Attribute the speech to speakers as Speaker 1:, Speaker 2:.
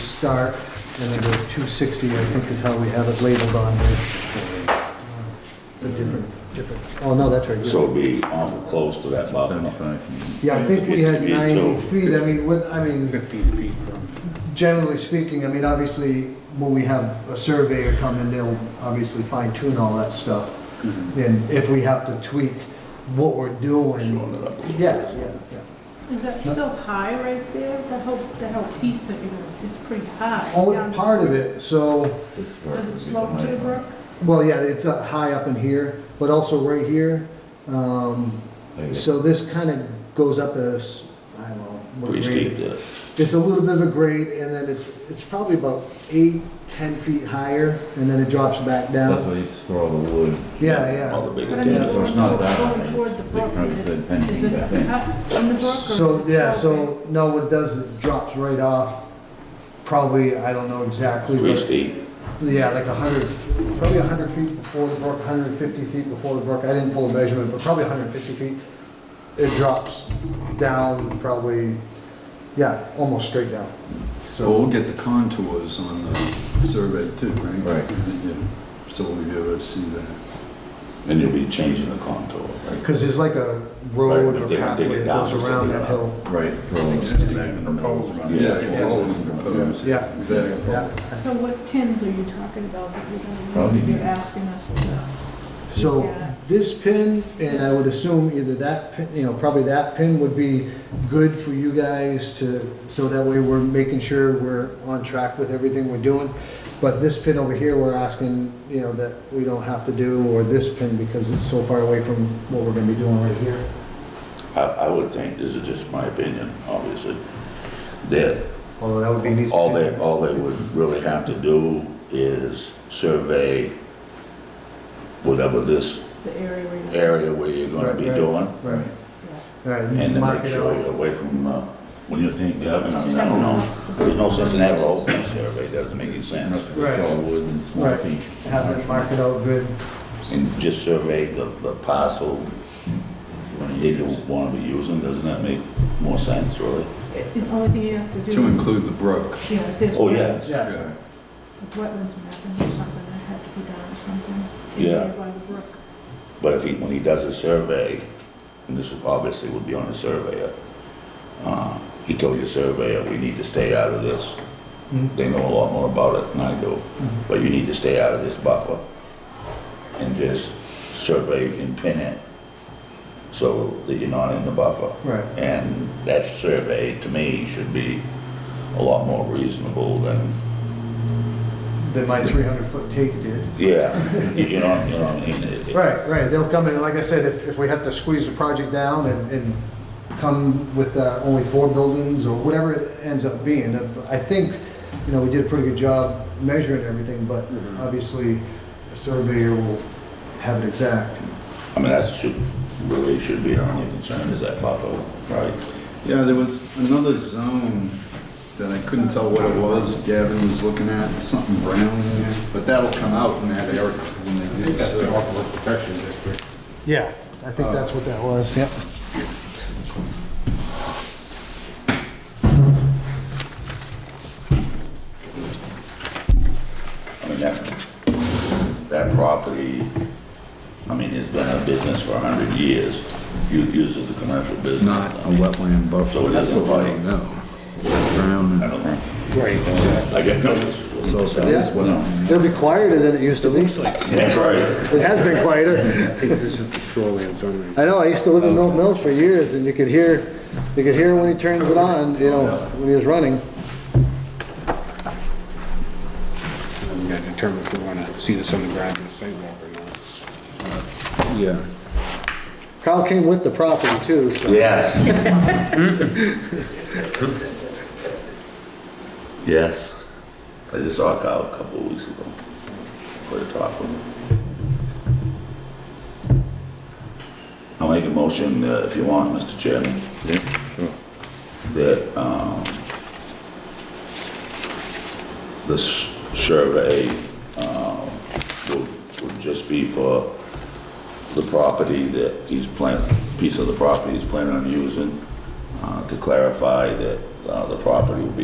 Speaker 1: start, and then the 260, I think is how we have it labeled on there. It's a different, different, oh, no, that's right.
Speaker 2: So it'd be awful close to that bottom.
Speaker 1: Yeah, I think we had
Speaker 2: Me too.
Speaker 1: 90 feet, I mean, with, I mean,
Speaker 3: 15 feet from,
Speaker 1: generally speaking, I mean, obviously, when we have a surveyor come in, they'll obviously fine tune all that stuff. And if we have to tweak what we're doing. Yeah, yeah, yeah.
Speaker 4: Is that
Speaker 1: No.
Speaker 4: still high right there? That whole, that whole piece that you're, it's pretty high.
Speaker 1: Only
Speaker 4: Down-
Speaker 1: part of Oh, it, so,
Speaker 4: Does it slope to the brook?
Speaker 1: well, yeah, it's uh, high up in here, but also right here. Um, So this kind of goes up a, s- I don't know. what
Speaker 2: Pretty
Speaker 1: grade
Speaker 2: steep
Speaker 1: it-
Speaker 2: there.
Speaker 1: It's a little bit of a grade, and then it's, it's probably about eight, 10 feet higher, and then it drops back
Speaker 5: That's
Speaker 1: down.
Speaker 5: why I used to store all the wood.
Speaker 1: Yeah, yeah.
Speaker 2: All the
Speaker 4: But
Speaker 2: bigger
Speaker 4: I mean,
Speaker 5: Yeah,
Speaker 2: things.
Speaker 5: so it's not that
Speaker 4: going
Speaker 5: high.
Speaker 4: toward the
Speaker 5: They
Speaker 4: brook,
Speaker 5: probably
Speaker 4: is
Speaker 5: said
Speaker 4: it-
Speaker 5: 10
Speaker 4: Is
Speaker 5: feet
Speaker 4: it
Speaker 5: back then.
Speaker 4: cut on the brook? or
Speaker 1: So,
Speaker 4: is it
Speaker 1: yeah, so,
Speaker 4: sloping?
Speaker 1: no, what it does is it drops right off, probably, I don't know exactly,
Speaker 2: Pretty
Speaker 1: but,
Speaker 2: steep.
Speaker 1: yeah, like a hundred, probably a hundred feet before the brook, hundred and fifty feet before the brook, I didn't pull a measurement, but probably hundred and fifty feet. It drops down probably, yeah, almost straight down,
Speaker 3: so
Speaker 1: so.
Speaker 3: we'll get the contours on the survey too, right?
Speaker 5: Right.
Speaker 3: Right. So we'll be able to see that.
Speaker 2: And you'll be changing the contour, right?
Speaker 1: Cause there's like a road
Speaker 2: Right,
Speaker 1: or
Speaker 2: they- they
Speaker 1: pathway
Speaker 2: get
Speaker 1: that
Speaker 2: down
Speaker 1: goes
Speaker 2: or something
Speaker 1: around that
Speaker 2: like
Speaker 1: hill,
Speaker 5: Right. for all the-
Speaker 3: Existing proposed.
Speaker 2: Yeah,
Speaker 3: Existing proposed.
Speaker 1: Yeah.
Speaker 3: Exactly.
Speaker 1: yeah.
Speaker 4: So what pins are you talking about that you're
Speaker 5: Probably
Speaker 4: gonna, you're
Speaker 5: the-
Speaker 4: asking us to?
Speaker 1: So
Speaker 4: Yeah.
Speaker 1: this pin, and I would assume either that pin, you know, probably that pin would be good for you guys to, so that way we're making sure we're on track with everything we're doing. But this pin over here, we're asking, you know, that we don't have to do, or this pin because it's so far away from what we're gonna be doing right here.
Speaker 2: I, I would think, this is just my opinion, obviously, that
Speaker 1: Although that would be an easy.
Speaker 2: all they, all they would really have to do is survey whatever this
Speaker 4: The area where you're.
Speaker 2: area where you're gonna be
Speaker 1: Right, right.
Speaker 2: doing,
Speaker 1: Right, right.
Speaker 2: and to
Speaker 1: mark
Speaker 2: make
Speaker 1: it
Speaker 2: sure
Speaker 1: out.
Speaker 2: you're away from, uh, when you think, Gavin, I mean, I don't know. There's no sense in having a whole survey, doesn't make any sense.
Speaker 5: It's all wood and small
Speaker 1: Right.
Speaker 5: feet.
Speaker 1: Have it mark it out good.
Speaker 2: And just survey the, the parcel that you wanna be using, doesn't that make more sense, really?
Speaker 4: It- The only thing he has to do.
Speaker 3: To include the brook.
Speaker 4: Yeah, if there's.
Speaker 2: Oh, yeah.
Speaker 1: Yeah,
Speaker 4: wet- Wetlands mapping or something that had to be done or something.
Speaker 2: Yeah.
Speaker 4: By the brook.
Speaker 2: But if he, when he does a survey, and this would obviously would be on a surveyor, uh, he told your surveyor, we need to stay out of this.
Speaker 1: Mhm.
Speaker 2: They know a lot more about it than I do,
Speaker 1: Mm-hmm.
Speaker 2: but you need to stay out of this buffer and just survey and pin it so that you're not in the buffer.
Speaker 1: right.
Speaker 2: And that survey, to me, should be a lot more reasonable than,
Speaker 1: That my three hundred foot take did.
Speaker 2: yeah, you know, you know what I mean? It- it-
Speaker 1: Right, right, they'll come in, like I said, if, if we have to squeeze the project down and, and come with uh, only four buildings or whatever it ends up being, uh, I think, you know, we did a pretty good job measuring everything, but obviously a surveyor will have it exact.
Speaker 2: I mean, that should, really should be our only concern is that buffer, right?
Speaker 3: Yeah, there was another zone that I couldn't tell what it was, Gavin was looking at, something brown in there, but that'll come out in that area when they do the
Speaker 6: uh,
Speaker 3: survey.
Speaker 6: protection district.
Speaker 1: Yeah. I think that's what that was, yep.
Speaker 2: I mean, that, that property, I mean, it's been a business for a hundred years. You use it as a commercial business.
Speaker 3: Not a wetland
Speaker 2: So
Speaker 3: buffer,
Speaker 2: it
Speaker 3: that's
Speaker 2: isn't
Speaker 3: what I
Speaker 2: like-
Speaker 3: don't know. Brown
Speaker 2: I
Speaker 3: and
Speaker 2: don't know.
Speaker 6: Right.
Speaker 2: I get no.
Speaker 3: So that is what I'm,
Speaker 1: It'll be quieter than it used to be.
Speaker 2: That's right.
Speaker 1: It has been quieter.
Speaker 6: I think this is the shoreline zone.
Speaker 1: I know, I used to live in Milton Mills for years, and you could hear, you could hear when he turns it on, you know, when he was running.
Speaker 6: We gotta uh, determine if we wanna see this on the ground or sidewalk or not.
Speaker 3: yeah.
Speaker 1: Kyle came with the property too, so.
Speaker 2: Yes. Yes. I just saw Kyle a couple of weeks ago. For the talk with him. I'll make a motion uh, if you want, Mr. Chairman.
Speaker 5: Yeah, sure.
Speaker 2: that, um, this survey, um, would, would just be for the property that he's plan, piece of the property he's planning on using, uh, to clarify that, uh, the property will be